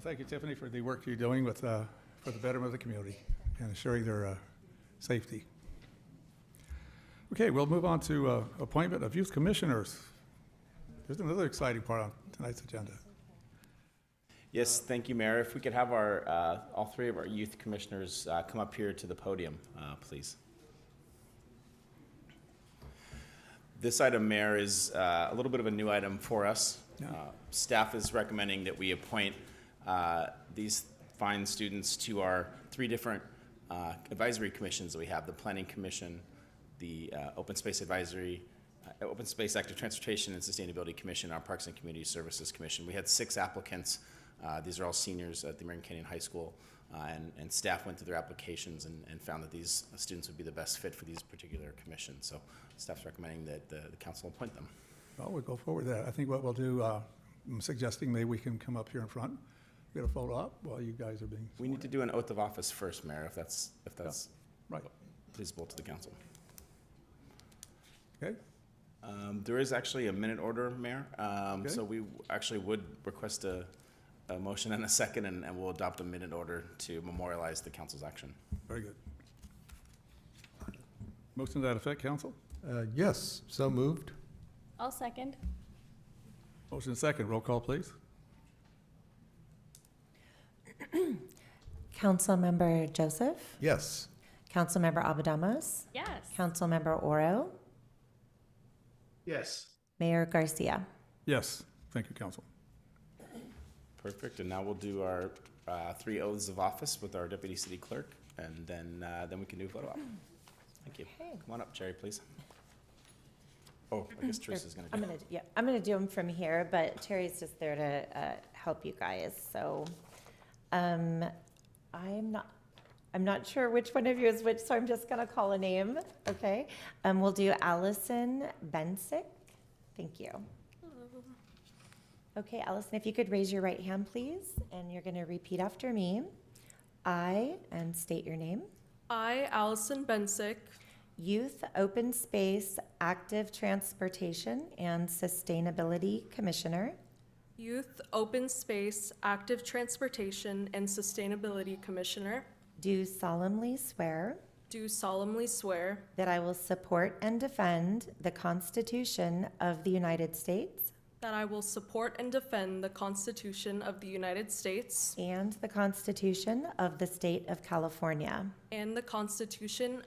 thank you, Tiffany, for the work you're doing with, uh, for the betterment of the community and ensuring their uh, safety. Okay, we'll move on to uh, appointment of youth commissioners. There's another exciting part on tonight's agenda. Yes, thank you, Mayor. If we could have our, uh, all three of our youth commissioners uh, come up here to the podium, uh, please. This item, Mayor, is uh, a little bit of a new item for us. Uh, Staff is recommending that we appoint uh, these fine students to our three different uh, advisory commissions that we have, the Planning Commission, the uh, Open Space Advisory, uh, Open Space Active Transportation and Sustainability Commission, our Parks and Community Services Commission. We had six applicants. Uh, These are all seniors at the American Canyon High School, uh, and, and staff went through their applications and, and found that these students would be the best fit for these particular commissions. So staff's recommending that the, the council appoint them. Well, we'll go forward with that. I think what we'll do, uh, I'm suggesting maybe we can come up here in front, get a photo up while you guys are being, We need to do an oath of office first, Mayor, if that's, if that's right, pleasable to the council. okay? Um, There is actually a minute order, Mayor, um, Okay. so we actually would request a, a motion and a second, and, and we'll adopt a minute order to memorialize the council's action. Very good. Motion to that effect, council? Uh, Yes, so moved. I'll second. Motion second, roll call, please. Councilmember Joseph, Yes. Councilmember Abadamas, Yes. Councilmember Oro, Yes. Mayor Garcia. Yes, thank you, council. Perfect, and now we'll do our uh, three oaths of office with our deputy city clerk, and then, uh, then we can do a photo op. Thank you. Hmm. Okay. Come on up, Jerry, please. Oh, I guess Teresa's gonna do I'm it. gonna, yeah, I'm gonna do them from here, but Terry's just there to uh, help you guys, so. um, I'm not, I'm not sure which one of you is which, so I'm just gonna call a name, okay? Um, We'll do Allison Bensick. Thank you. Okay, Allison, if you could raise your right hand, please, and you're gonna repeat after me. I, and state your name. I, Allison Bensick, Youth, Open Space, Active Transportation, and Sustainability Commissioner, Youth, Open Space, Active Transportation, and Sustainability Commissioner, do solemnly swear do solemnly swear that I will support and defend the Constitution of the United States that I will support and defend the Constitution of the United States and the Constitution of the State of California and the Constitution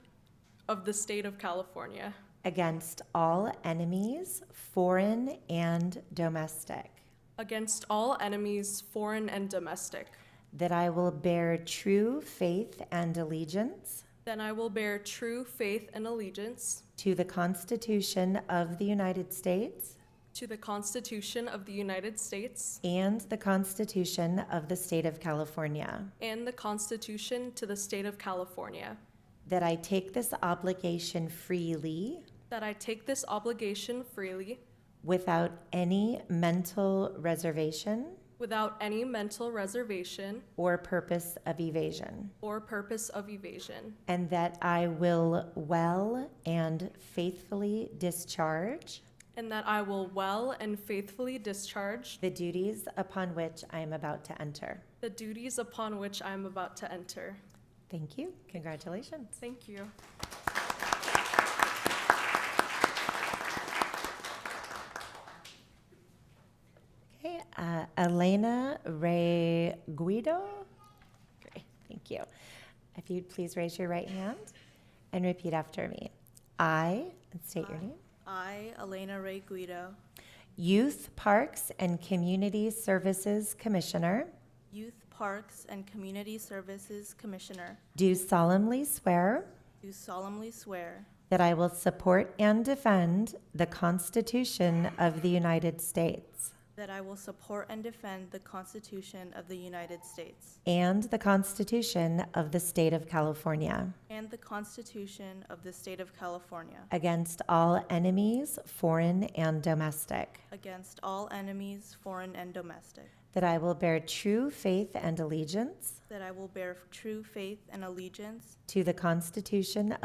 of the State of California against all enemies, foreign and domestic, against all enemies, foreign and domestic, that I will bear true faith and allegiance that I will bear true faith and allegiance to the Constitution of the United States to the Constitution of the United States And the Constitution of the State of California. and the Constitution to the State of California. That I take this obligation freely, That I take this obligation freely, without any mental reservation without any mental reservation or purpose of evasion. or purpose of evasion, And that I will well and faithfully discharge and that I will well and faithfully discharge the duties upon which I am about to enter. the duties upon which I am about to enter. Thank you. Congratulations. Thank you. Okay, uh, Elena Ray Guido. Great, thank you. If you'd please raise your right hand and repeat after me. I, and state your name, I, Elena Ray Guido, Youth Parks and Community Services Commissioner, Youth Parks and Community Services Commissioner, do solemnly swear do solemnly swear that I will support and defend the Constitution of the United States that I will support and defend the Constitution of the United States and the Constitution of the State of California and the Constitution of the State of California against all enemies, foreign and domestic. against all enemies, foreign and domestic, That I will bear true faith and allegiance that I will bear true faith and allegiance to the Constitution